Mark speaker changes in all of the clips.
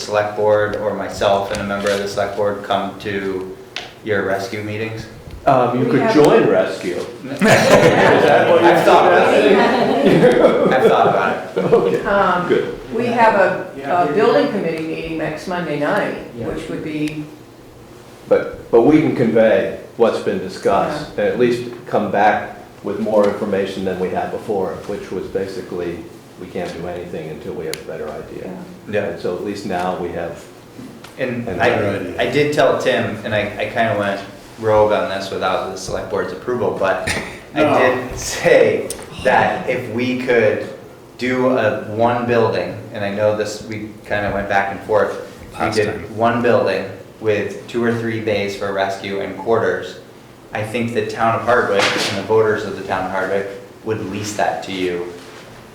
Speaker 1: select board or myself and a member of the select board come to your rescue meetings?
Speaker 2: Um, you
Speaker 3: We
Speaker 2: could
Speaker 3: have-
Speaker 2: join rescue. Is that what you're
Speaker 1: I've thought about it.
Speaker 2: suggesting?
Speaker 1: I've thought about it.
Speaker 2: Okay,
Speaker 3: Um,
Speaker 2: good.
Speaker 3: We have a, a building committee meeting next Monday night, which would be,
Speaker 2: But, but we can convey what's been discussed, and at least come back with more information than we had before, which was basically, we can't do anything until we have a better idea.
Speaker 1: Yeah.
Speaker 2: And so at least now we have,
Speaker 1: And
Speaker 2: And
Speaker 1: I,
Speaker 2: better
Speaker 1: I did tell Tim, and I, I kind of went rogue on this without the select board's approval, but I
Speaker 4: No.
Speaker 1: did say that if we could do a, one building, and I know this, we kind of went back and forth. We
Speaker 5: Last
Speaker 1: did
Speaker 5: time.
Speaker 1: one building with two or three bays for rescue and quarters. I think the town of Hardwick and the voters of the town of Hardwick would lease that to you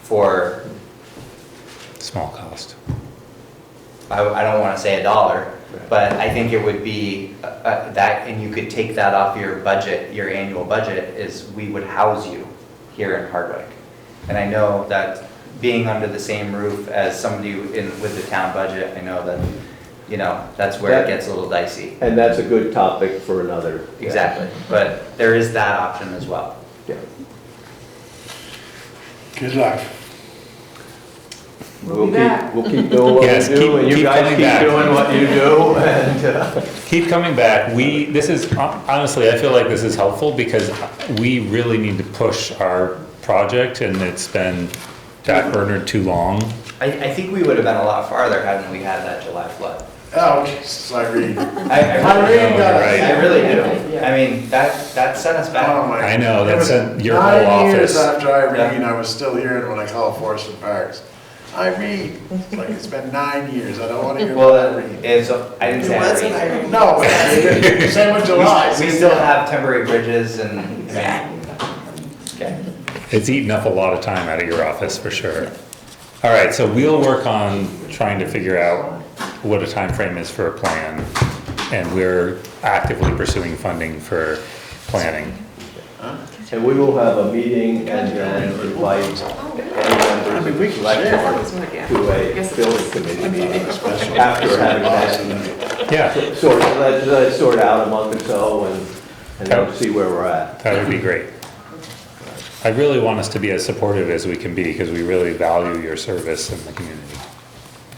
Speaker 1: for
Speaker 5: Small cost.
Speaker 1: I, I don't want to say a dollar,
Speaker 2: Right.
Speaker 1: but I think it would be uh, uh, that, and you could take that off your budget, your annual budget, is we would house you here in Hardwick. And I know that being under the same roof as somebody in, with the town budget, I know that, you know, that's where it
Speaker 2: That-
Speaker 1: gets a little dicey.
Speaker 2: and that's a good topic for another.
Speaker 1: Exactly, but there is that option as well.
Speaker 2: Yeah.
Speaker 4: Good luck.
Speaker 3: We'll be back.
Speaker 2: We'll keep doing what
Speaker 5: Yes,
Speaker 2: we
Speaker 5: keep-
Speaker 2: do, and you
Speaker 5: keep
Speaker 2: guys
Speaker 5: coming
Speaker 2: keep
Speaker 5: back.
Speaker 2: doing what you do, and, uh,
Speaker 5: Keep coming back. We, this is, honestly, I feel like this is helpful because we really need to push our project and it's been backburnered too long.
Speaker 1: I, I think we would have been a lot farther hadn't we had that July flood.
Speaker 4: Oh, Jesus, Irene.
Speaker 1: I, I really,
Speaker 4: Irene got
Speaker 5: Right.
Speaker 1: I
Speaker 4: us.
Speaker 1: really do. I mean, that, that set us back.
Speaker 2: Um,
Speaker 4: Oh, my-
Speaker 5: I know,
Speaker 4: It
Speaker 5: that
Speaker 4: was
Speaker 5: sent your whole
Speaker 4: Nine years
Speaker 5: office.
Speaker 4: after Irene, I was still hearing when I called Forest and Parks. Irene, It's like, it's been nine years, I don't want to hear
Speaker 1: Well,
Speaker 4: about
Speaker 1: it-
Speaker 4: Irene.
Speaker 1: it's, I didn't say Irene.
Speaker 4: No, same with July.
Speaker 1: We still have temporary bridges and, I mean, okay.
Speaker 5: It's eaten up a lot of time out of your office for sure. All right, so we'll work on trying to figure out what a time frame is for a plan. And we're actively pursuing funding for planning.
Speaker 2: and we will have a meeting and then invite any members of the select board to a building committee meeting after having that
Speaker 5: Yeah,
Speaker 2: sort, let, let it sort out a month or so and, and then
Speaker 5: Okay.
Speaker 2: see where we're at.
Speaker 5: that would be great. I really want us to be as supportive as we can be because we really value your service in the community.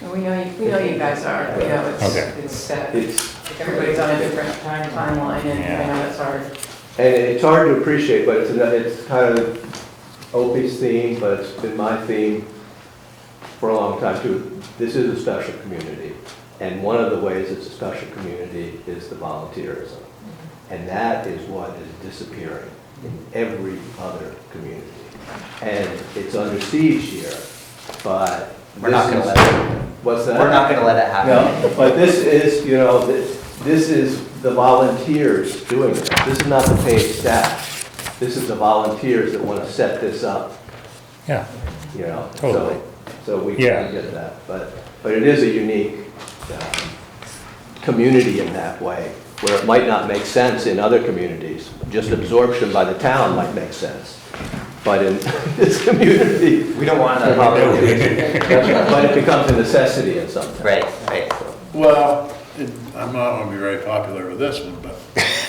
Speaker 3: and we know, you- we know you guys are, you know, it's,
Speaker 5: Okay.
Speaker 3: it's set.
Speaker 2: It's,
Speaker 3: Everybody's on a different time- timeline and I
Speaker 5: Yeah.
Speaker 3: know it's hard.
Speaker 2: and it's hard to appreciate, but it's, another- it's kind of Opie's theme, but it's been my theme for a long time too. This is a special community, and one of the ways it's a special community is the volunteerism. And that is what is disappearing in every other community. And it's under siege here, but.
Speaker 1: We're not
Speaker 2: this
Speaker 1: gonna
Speaker 2: is-
Speaker 1: let it,
Speaker 2: What's that?
Speaker 1: we're not gonna let it happen.
Speaker 2: No, but this is, you know, this, this is the volunteers doing this. This is not the paid staff. This is the volunteers that want to set this up,
Speaker 5: Yeah.
Speaker 2: you know? so-
Speaker 5: Totally.
Speaker 2: So we we
Speaker 5: Yeah.
Speaker 2: get that, but, but it is a unique, um, community in that way, where it might not make sense in other communities. Just absorption by the town might make sense, but in this community,
Speaker 1: We don't want
Speaker 2: No.
Speaker 1: to,
Speaker 2: but it becomes a necessity in some.
Speaker 1: right, right.
Speaker 4: Well, it- I'm not gonna be very popular with this one, but.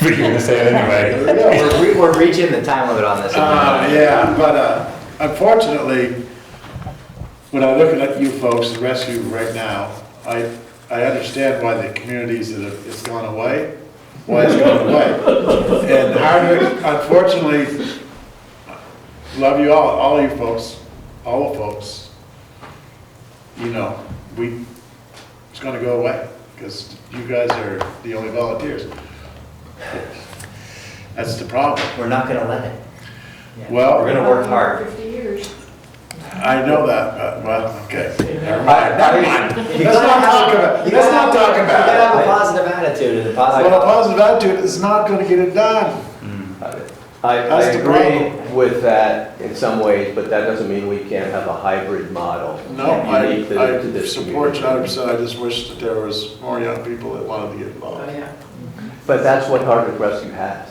Speaker 5: But you're gonna say it anyway.
Speaker 1: We're, re- we're reaching the time limit on this.
Speaker 4: Uh, yeah, but uh, unfortunately, when I look at you folks, the rescue right now, I, I understand why the communities that have, it's gone away, why it's gone away. And Hardwick, unfortunately, love you all, all you folks, all the folks. You know, we, it's gonna go away, because you guys are the only volunteers. That's the problem.
Speaker 1: We're not gonna let it.
Speaker 4: Well.
Speaker 1: We're gonna work hard.
Speaker 3: Fifty years.
Speaker 4: I know that, but, well, okay. Never mind.
Speaker 1: Let's
Speaker 4: Let's not talk about, let's not talk
Speaker 1: You gotta have a
Speaker 4: about it.
Speaker 1: positive attitude and a positive.
Speaker 4: Well, a positive attitude is not gonna get it done.
Speaker 2: I, I
Speaker 4: That's the
Speaker 2: agree with that in some ways, but that doesn't mean we can't have a hybrid model.
Speaker 4: No, I,
Speaker 2: unique to- to
Speaker 4: I
Speaker 2: this
Speaker 4: support you
Speaker 2: community.
Speaker 4: 100%. I just wish that there was more young people that wanted to get
Speaker 3: Oh,
Speaker 4: involved.
Speaker 3: yeah.
Speaker 2: But that's what Hardwick Rescue has.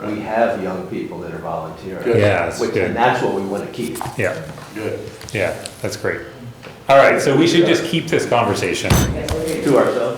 Speaker 2: We
Speaker 4: Right.
Speaker 2: have young people that are volunteering.
Speaker 4: Good.
Speaker 5: Yeah, it's
Speaker 2: Which, and
Speaker 5: good.
Speaker 2: that's what we want to keep.
Speaker 5: Yeah,
Speaker 4: Good.
Speaker 5: yeah, that's great.
Speaker 2: All right, so we should just keep this conversation.
Speaker 5: Yes, it is.
Speaker 3: to ourselves.